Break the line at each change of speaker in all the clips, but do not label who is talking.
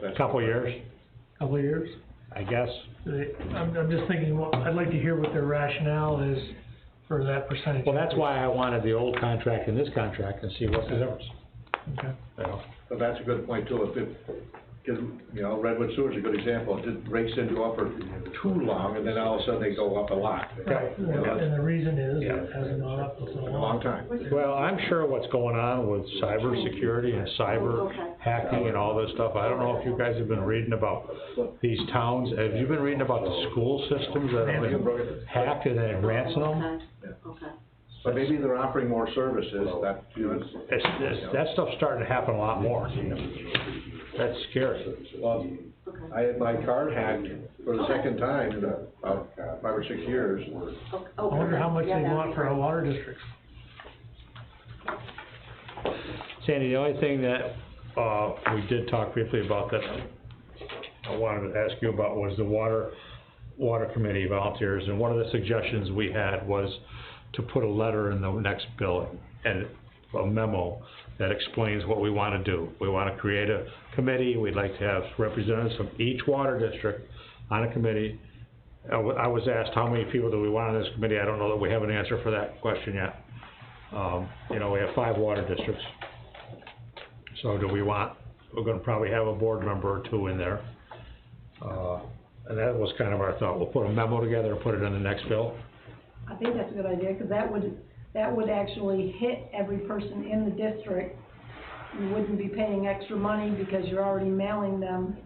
that's.
couple years,
couple of years.
I guess.
They- I'm, I'm just thinking, well, I'd like to hear what their rationale is for that percentage.
Well, that's why I wanted the old contract and this contract and see what's the difference.
Okay.
you know.
But that's a good point too, if it, cause, you know, Redwood Sewer's a good example, it didn't- rates didn't go up for too long, and then all of a sudden they go up a lot.
Right,
You know, that's
and the reason is,
Yeah.
it hasn't gone up for so
been a long
long.
time.
Well, I'm sure what's going on with cybersecurity and cyber hacking and all this stuff, I don't know if you guys have been reading about these towns, have you been reading about the school systems that have been hacked and then ransomed?
Okay, okay.
But maybe they're offering more services, that, you know, it's-
It's, it's, that stuff's starting to happen a lot more. That's scary.
well,
Okay.
I had my card hacked for the second time in about five or six years.
Okay.
I wonder how much
Yeah,
they
that'd
want
be
for
great.
our water districts.
Sandy, the only thing that, uh, we did talk briefly about that I wanted to ask you about was the water, water committee volunteers, and one of the suggestions we had was to put a letter in the next billing, and a memo that explains what we wanna do. We wanna create a committee, we'd like to have representatives from each water district on a committee. I wa- I was asked, how many people do we want on this committee? I don't know that we have an answer for that question yet. Um, you know, we have five water districts. So do we want, we're gonna probably have a board member or two in there. Uh, and that was kind of our thought, we'll put a memo together and put it in the next bill.
I think that's a good idea, because that would, that would actually hit every person in the district. You wouldn't be paying extra money because you're already mailing them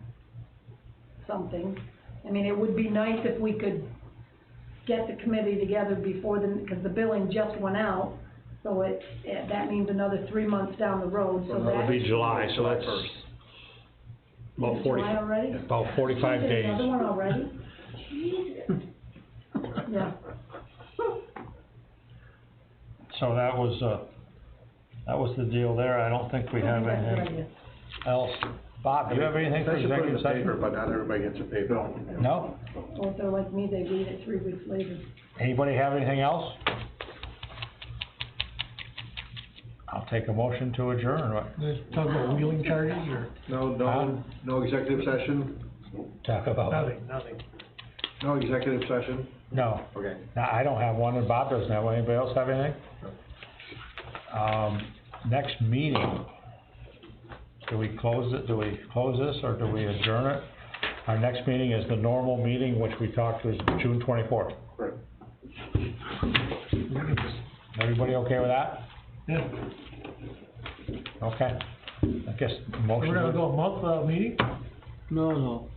something. I mean, it would be nice if we could get the committee together before the, because the billing just went out. So it, it- that means another three months down the road, so
That would
that.
be July, so that's about
Is it
forty,
July already?
about forty-five
You did
days.
Another one already? Yeah.
So that was, uh, that was the deal there, I don't think we
I
have
think that's a good
anything
idea.
else. Bob, do you have anything for
They should put it in
executive
the paper,
session?
But not everybody gets a paper.
No?
Or if they're like me, they read it three weeks later.
Anybody have anything else? I'll take a motion to adjourn,
They talk about wheeling charges or
No, no, no executive session,
talk about,
nothing, nothing.
no executive session,
no.
okay.
No, I don't have one, and Bob doesn't have one. Anybody else have anything? Um, next meeting, do we close it, do we close this, or do we adjourn it? Our next meeting is the normal meeting, which we talked is June twenty-fourth.
Correct.
Everybody okay with that?
Yeah,
Okay. I guess
we're
motion
gonna
to,
go a month without meeting?
No, no,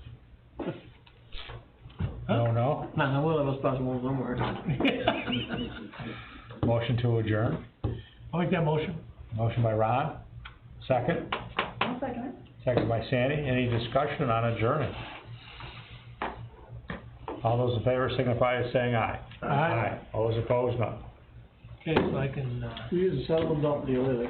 no, no,
no, no, one of us possible somewhere.
motion to adjourn.
I'll make that motion.
Motion by Ron, second,
One second.
second by Sandy. Any discussion on adjourning? All those in favor signify by saying aye.
Aye.
All those opposed, none.
Okay, so I can, uh,
We use a seldom dump deal, either.